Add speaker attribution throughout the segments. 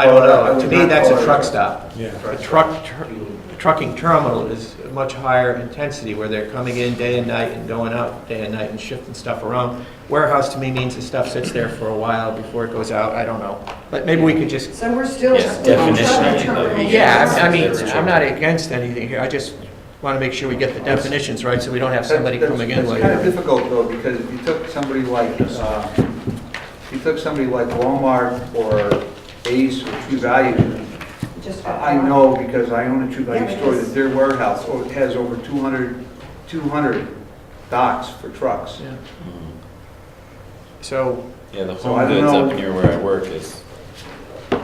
Speaker 1: I don't
Speaker 2: Well, I
Speaker 1: know. To
Speaker 2: would
Speaker 1: me,
Speaker 2: not
Speaker 1: that's
Speaker 2: call
Speaker 1: a
Speaker 2: it
Speaker 1: truck
Speaker 2: a-
Speaker 1: stop.
Speaker 3: Yeah.
Speaker 1: A truck, tr- trucking terminal is a much higher intensity where they're coming in day and night and going out day and night and shifting stuff around. Warehouse to me means the stuff sits there for a while before it goes out. I don't know. But maybe we could just,
Speaker 4: So we're still.
Speaker 5: Yeah, definition of each.
Speaker 1: yeah, I I mean, I'm not against anything here. I just want to make sure we get the definitions right so we don't have somebody
Speaker 2: That's-
Speaker 1: coming in
Speaker 2: It's kind of
Speaker 1: later.
Speaker 2: difficult though, because if you took somebody like, uh, if you took somebody like Walmart or Ace or True Value,
Speaker 4: Just got
Speaker 2: I I
Speaker 4: one.
Speaker 2: know because I own a True
Speaker 4: Yeah,
Speaker 2: Value
Speaker 4: but
Speaker 2: store
Speaker 4: it's-
Speaker 2: that their warehouse o- has over 200, 200 docks for trucks.
Speaker 1: Yeah. So,
Speaker 5: Yeah, the
Speaker 2: So
Speaker 5: home
Speaker 2: I don't
Speaker 5: goods up
Speaker 2: know.
Speaker 5: near where I work is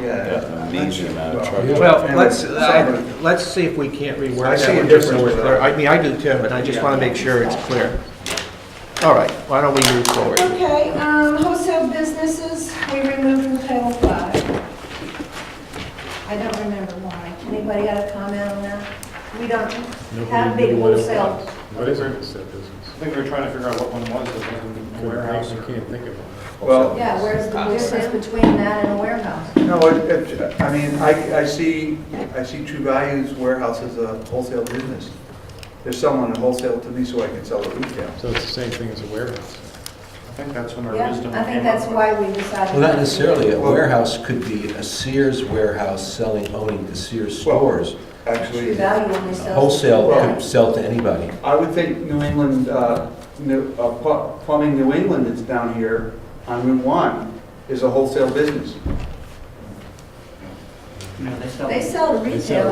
Speaker 2: Yeah.
Speaker 5: an amazing amount of
Speaker 2: Well,
Speaker 5: trucks.
Speaker 1: Well,
Speaker 2: and
Speaker 1: let's,
Speaker 2: somebody-
Speaker 1: I- let's see if we can't
Speaker 2: I
Speaker 1: reword
Speaker 2: see
Speaker 1: that
Speaker 2: a
Speaker 1: one, just so
Speaker 2: difference,
Speaker 1: we're
Speaker 2: but-
Speaker 1: clear. I mean, I do too, but I just want to make sure it's clear. All right, why don't we move forward?
Speaker 4: Okay, um, wholesale businesses, we removed from Title Five. I don't remember why. Anybody got a comment on that? We don't have big wholesale.
Speaker 3: What is it, said business?
Speaker 6: I think we were trying to figure out what one was, it wasn't a warehouse
Speaker 3: I
Speaker 6: or.
Speaker 3: can't think of one.
Speaker 2: Well,
Speaker 4: Yeah, where's the difference between that and a warehouse?
Speaker 2: no, it- it- I mean, I, I see, I see True Value's warehouse as a wholesale business. There's someone to wholesale to me so I can sell it retail.
Speaker 3: So it's the same thing as a warehouse.
Speaker 6: I think that's when our
Speaker 4: Yeah,
Speaker 6: wisdom came
Speaker 4: I think that's
Speaker 6: up with-
Speaker 4: why we decided.
Speaker 7: Well, not necessarily, a warehouse could be a Sears warehouse selling, owning to Sears stores.
Speaker 4: True
Speaker 2: Actually,
Speaker 4: value only sells.
Speaker 7: Wholesale
Speaker 2: Well-
Speaker 7: could sell to anybody.
Speaker 2: I would think New England, uh, New- uh, Pl- Plumbing New England that's down here on Route 1 is a wholesale business.
Speaker 4: They sell retail.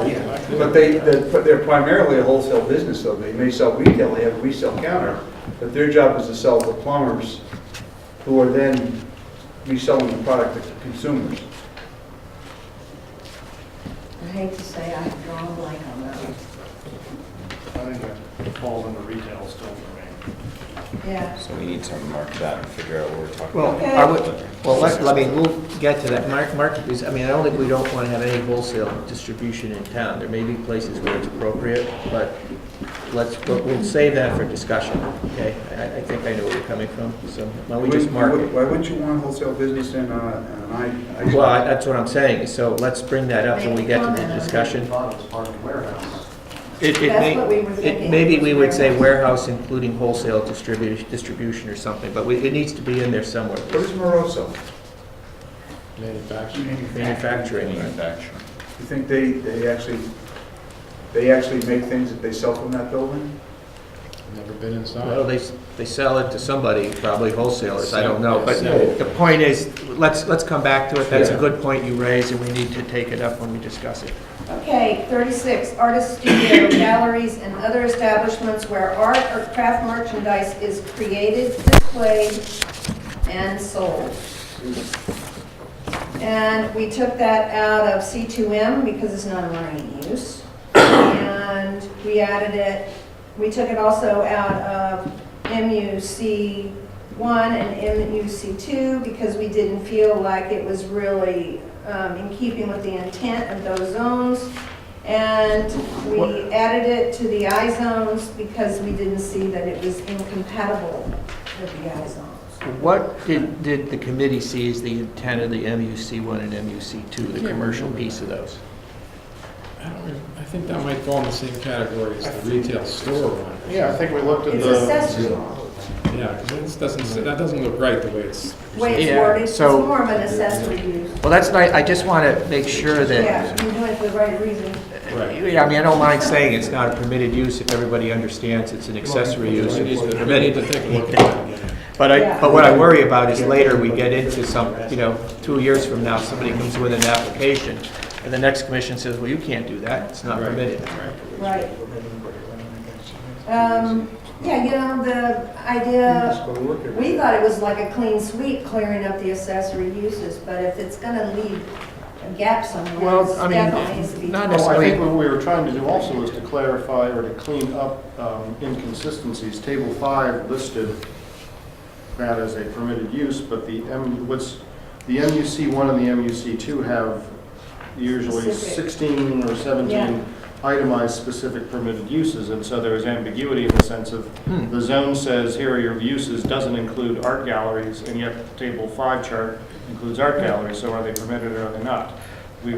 Speaker 2: But they, they're but they're primarily a wholesale business, though. They may sell retail, they have a resale counter, but their job is to sell to plumbers who are then reselling the product to consumers.
Speaker 4: I hate to say I have drawn a blank on that. one.
Speaker 6: I think that falls under retail still for me.
Speaker 4: Yeah.
Speaker 5: So we need to mark that and figure out what we're talking
Speaker 1: Well,
Speaker 5: about.
Speaker 1: I would, well, let, let me, we'll get to that. Mark, Mark, is- I mean, I don't think we don't want to have any wholesale distribution in town. There may be places where it's appropriate, but let's, we'll- we'll save that for discussion, okay? I, I think I know where you're coming from, so why don't we just mark it?
Speaker 2: Why wouldn't you want a wholesale business in, uh, an I? I-
Speaker 1: Well, I- that's what I'm saying, so let's bring that up when we get to the discussion.
Speaker 6: Thought it was part of the warehouse.
Speaker 1: It, it
Speaker 4: That's
Speaker 1: may,
Speaker 4: what we were
Speaker 1: it,
Speaker 4: thinking.
Speaker 1: maybe we would say warehouse including wholesale distribution, distribution or something, but we, it needs to be in there somewhere.
Speaker 2: What is Moroso?
Speaker 3: Manufacturing.
Speaker 1: Manufacturing, right?
Speaker 5: Manufacturing.
Speaker 2: You think they, they actually, they actually make things that they sell from that building?
Speaker 3: Never been
Speaker 1: Well,
Speaker 3: inside.
Speaker 1: they, s- they sell it to somebody, probably wholesalers, I don't know, but
Speaker 3: Sell it.
Speaker 1: the point is, let's, let's come back to it, that's a good point you raise, and we need to take it up when we discuss it.
Speaker 4: Okay, 36, artist studio, galleries, and other establishments where art or craft merchandise is created, displayed, and sold. And we took that out of C2M because it's not a marine use. And we added it, we took it also out of MUC1 and MUC2 because we didn't feel like it was really um, in keeping with the intent of those zones. And we added it to the I zones because we didn't see that it was incompatible with the I zones.
Speaker 1: What did, did the committee see as the intent of the MUC one and MUC two, the
Speaker 3: Yeah.
Speaker 1: commercial piece of those?
Speaker 3: I don't re- I think that might fall in the same category as the retail store one.
Speaker 6: Yeah, I think we looked at
Speaker 4: It's
Speaker 6: the,
Speaker 4: accessory.
Speaker 3: Yeah, 'cause this doesn't, sit- that doesn't look right the way it's.
Speaker 4: way it's
Speaker 1: Yeah,
Speaker 4: worded, it's
Speaker 1: so-
Speaker 4: more of an accessory use.
Speaker 1: Well, that's nice, I just want to make sure that.
Speaker 4: Yeah, you're doing it for the right reason.
Speaker 3: Right.
Speaker 1: Yeah, I mean, I don't mind saying it's not a permitted use if everybody understands it's an accessory
Speaker 3: We
Speaker 1: use,
Speaker 3: need
Speaker 1: it's
Speaker 3: to we need to
Speaker 1: permitted.
Speaker 3: take a look at that again.
Speaker 1: But I,
Speaker 4: Yeah.
Speaker 1: but what I worry about is later we get into some, you know, two years from now, somebody comes with an application, and the next commission says, well, you can't do that, it's not
Speaker 3: Right.
Speaker 1: permitted.
Speaker 4: Right. Um, yeah, you know, the idea, we thought it was like a clean sweep clearing up the accessory uses, but if it's gonna leave a gap somewhere,
Speaker 1: Well,
Speaker 4: it's
Speaker 1: I mean,
Speaker 4: definitely needs to be.
Speaker 1: not
Speaker 6: well, I think what we were trying to do also is to clarify or to clean up um, inconsistencies. Table five listed that as a permitted use, but the M, what's, the MUC one and the MUC two have usually
Speaker 4: Specific.
Speaker 6: sixteen or
Speaker 4: Yeah.
Speaker 6: seventeen itemized specific permitted uses, and so there is ambiguity in the sense of,
Speaker 1: Hmm.
Speaker 6: the zone says, here are your uses, doesn't include art galleries, and yet table five chart includes art galleries, so are they permitted or are they not?